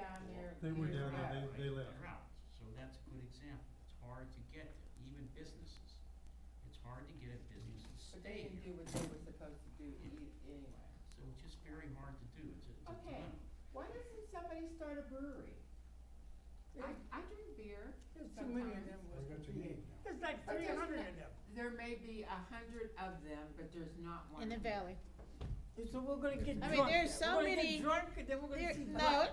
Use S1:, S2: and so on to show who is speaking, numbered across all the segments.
S1: They were down there,
S2: out,
S1: they- they
S2: right?
S1: left.
S2: They're out. so that's a good example, it's hard to get there, even businesses. It's hard to get a business to
S3: But they
S2: stay
S3: didn't
S2: here,
S3: do what they were supposed to do e- anyway.
S2: so it's just very hard to do, it's a, it's a
S3: Okay.
S2: dilemma.
S3: Why doesn't somebody start a brewery?
S4: I, I drink beer
S5: There's too many of
S4: sometimes.
S1: I
S5: them.
S1: got your name now.
S5: There's like
S4: But
S5: three
S4: there's
S5: hundred
S4: no-
S5: of them.
S3: There may be a hundred of them, but there's not one.
S6: in the
S3: here.
S6: valley.
S5: So we're gonna get
S6: I
S5: drunk.
S6: mean, there's so
S5: We're gonna
S6: many-
S5: get drunk and then we're gonna
S6: There-
S5: see
S6: No,
S5: blood.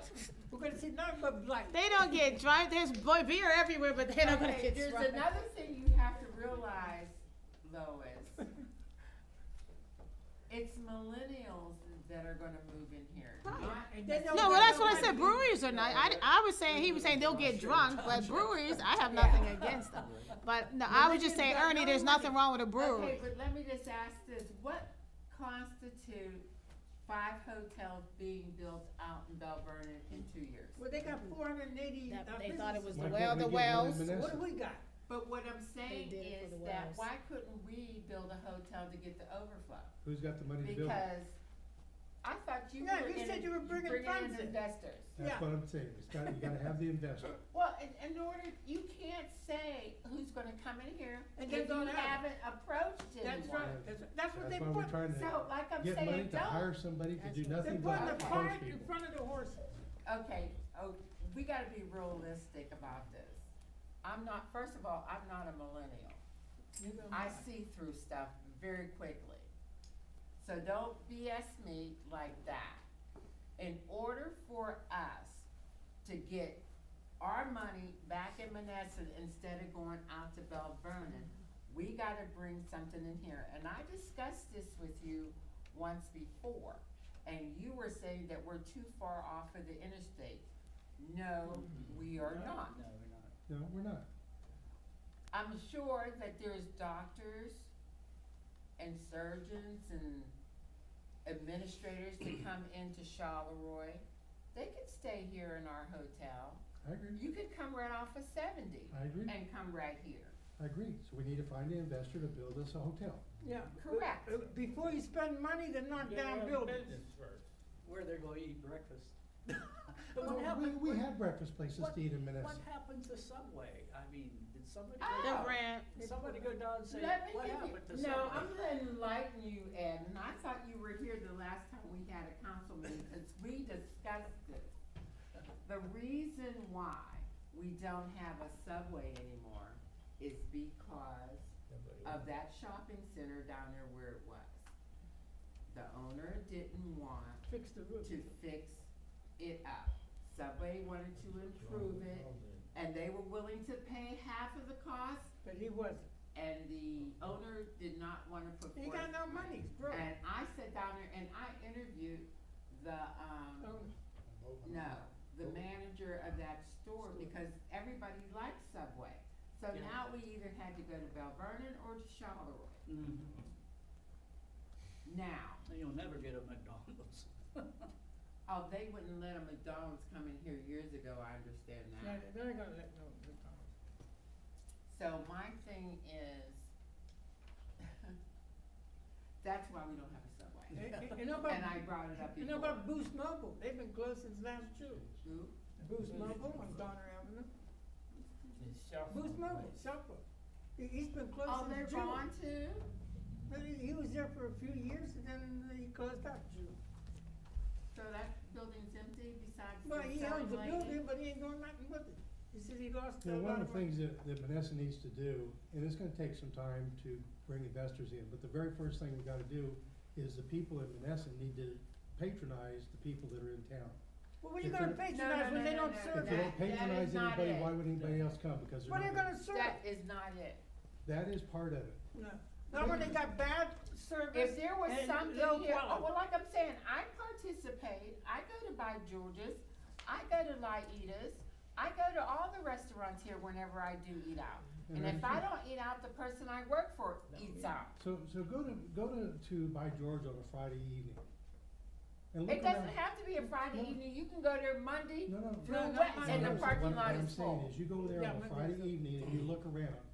S5: We're gonna see nothing but blood.
S6: they don't get drunk. There's boy beer everywhere, but they don't
S3: Okay,
S6: gonna get
S3: There's
S6: drunk.
S3: another thing you have to realize, Lois. It's millennials that are gonna move in here.
S6: Right.
S3: not-
S5: And they don't
S6: No,
S5: got
S6: well, that's what I
S5: nobody.
S6: said. Breweries are not. I, I was saying he was saying they'll get drunk, but breweries, I have nothing against them. But no, I was just saying, Ernie, there's nothing wrong with a
S3: Okay,
S6: brewery.
S3: but let me just ask this, what constitute five hotels being built out in Bel Vernon in two years?
S5: Well, they got four hundred and eighty.
S6: That-
S5: uh,
S6: they thought it was
S5: businesses.
S6: the well, the wells.
S5: What do we got?
S3: But what I'm saying
S6: did it for
S3: is
S6: the
S3: that
S6: wells.
S3: why couldn't we build a hotel to get the overflow?
S1: Who's got the money to build it?
S3: Because I thought you were
S5: No, you
S3: in-
S5: said you were bringing funds
S3: in
S5: in.
S3: investors.
S5: yeah.
S1: That's what I'm saying, it's got, you gotta have the investor.
S3: Well, in, in order, you can't say who's gonna come in here
S5: And
S3: if
S5: they're
S3: you
S5: gonna have
S3: haven't approached anyone.
S5: That's right. That's, that's what they
S1: That's why we're
S5: put.
S1: trying
S3: So,
S1: to
S3: like I'm
S1: get money
S3: saying,
S1: to hire
S3: don't,
S1: somebody to
S6: That's
S1: do
S6: what-
S5: They're
S1: nothing but
S5: putting
S3: Okay.
S1: approach
S5: the cart in
S1: people.
S5: front of the horse.
S3: okay, oh, we gotta be realistic about this. I'm not, first of all, I'm not a millennial.
S6: uh,
S3: I see through stuff very quickly. So don't BS me like that. In order for us to get our money back in Menneson instead of going out to Bel Vernon, we gotta bring something in here. And I discussed this with you once before, and you were saying that we're too far off of the interstate. No, we are not.
S7: No, we're not.
S1: No, we're not.
S3: I'm sure that there's doctors and surgeons and administrators to come into Charleroi. They could stay here in our hotel.
S1: I agree,
S3: You could come right off of seventy
S1: I agree,
S3: and come right here.
S1: I agree. So we need to find an investor to build us a hotel.
S5: Yeah.
S3: Correct.
S5: Uh, Before you spend money to knock down buildings.
S7: Where they're gonna eat breakfast.
S5: But what
S1: Well,
S5: happened-
S1: We, we
S5: what-
S1: have breakfast places
S7: what-
S1: to eat in
S7: What
S1: Menneson.
S7: happened to Subway? I mean, did somebody,
S3: Ah!
S7: go-
S6: The rent.
S7: did somebody go down and say,
S3: Let me
S7: what
S3: give
S7: happened to
S3: you,
S7: Subway?
S3: no, I'm gonna enlighten you, Ed, and I thought you were here the last time we had a council meeting, because we discussed this. The reason why we don't have a Subway anymore is because of that shopping center down there where it was. The owner didn't want
S5: Fix the roof.
S3: to fix it up. Subway wanted to improve it, and they were willing to pay half of the cost,
S5: But he wasn't.
S3: and the owner did not wanna put forth.
S5: He got no money, he's broke.
S3: And I sat down there and I interviewed the, um,
S6: Oh,
S5: Um,
S3: no, the manager of that store, because everybody liked Subway. So
S7: Yeah.
S3: now we either had to go to Bel Vernon or to Charleroi.
S7: Mhm.
S3: Now,
S7: You'll never get a McDonald's.
S3: oh, they wouldn't let a McDonald's come in here years ago, I understand that.
S5: yeah, They're not gonna let no, no.
S3: So my thing is, that's why we don't have a subway.
S5: You- you- You know
S3: And I
S5: about,
S3: brought it up
S5: you know
S3: before.
S5: about Boost Mobile, they've been closed since last June.
S3: Who?
S5: Boost Mobile on Donner Avenue, Boost Mobile, Southwood. He- He's been
S3: Oh,
S5: closed
S3: they're
S5: since June.
S3: gone too?
S5: But He he was there for a few years and then he closed up June.
S3: So that building's empty besides the
S5: Well, he owns the
S3: selling
S5: building,
S3: lady?
S5: but he ain't doing nothing with it. He said he lost
S1: You
S5: a
S1: know, one
S5: lot
S1: of the
S5: of money.
S1: things that, that Menneson needs to do, and it's gonna take some time to bring investors in, but the very first thing we gotta do is the people in Menneson need to patronize the people that are in town.
S5: Well, what are you
S1: If
S5: gonna
S1: they're- No,
S5: patronize when
S3: no,
S5: they
S3: no,
S5: don't
S3: no,
S5: serve
S1: If they don't
S5: it?
S3: That- that is
S1: patronize
S3: not
S1: anybody,
S3: it.
S1: why would anybody else come? Because
S5: What are
S1: they're
S5: you
S1: not
S5: gonna serve
S3: That
S5: it?
S3: is not it.
S1: That is part of it.
S5: No. Not when they got bad service.
S3: If there was
S5: and
S3: something
S5: low
S3: here, oh,
S5: quality.
S3: well, like I'm saying, I participate, I go to By George's, I go to Laitas, I go to all the restaurants here whenever I do eat out. And if I don't eat out, the person I work for eats out.
S1: So, so go to, go to, to by George on a Friday evening. and
S3: It
S1: look
S3: doesn't
S1: around.
S3: have to be a Friday
S1: No.
S3: evening, you can go there Monday
S1: No, no.
S3: through
S5: No, no,
S3: Wednesday,
S5: no,
S3: and
S1: No,
S3: the
S1: no, so
S3: parking
S1: what-
S3: lot
S1: What I'm
S3: is
S1: saying
S3: full.
S1: is you go there
S5: Yeah,
S1: on a
S5: but-
S1: Friday evening and you look around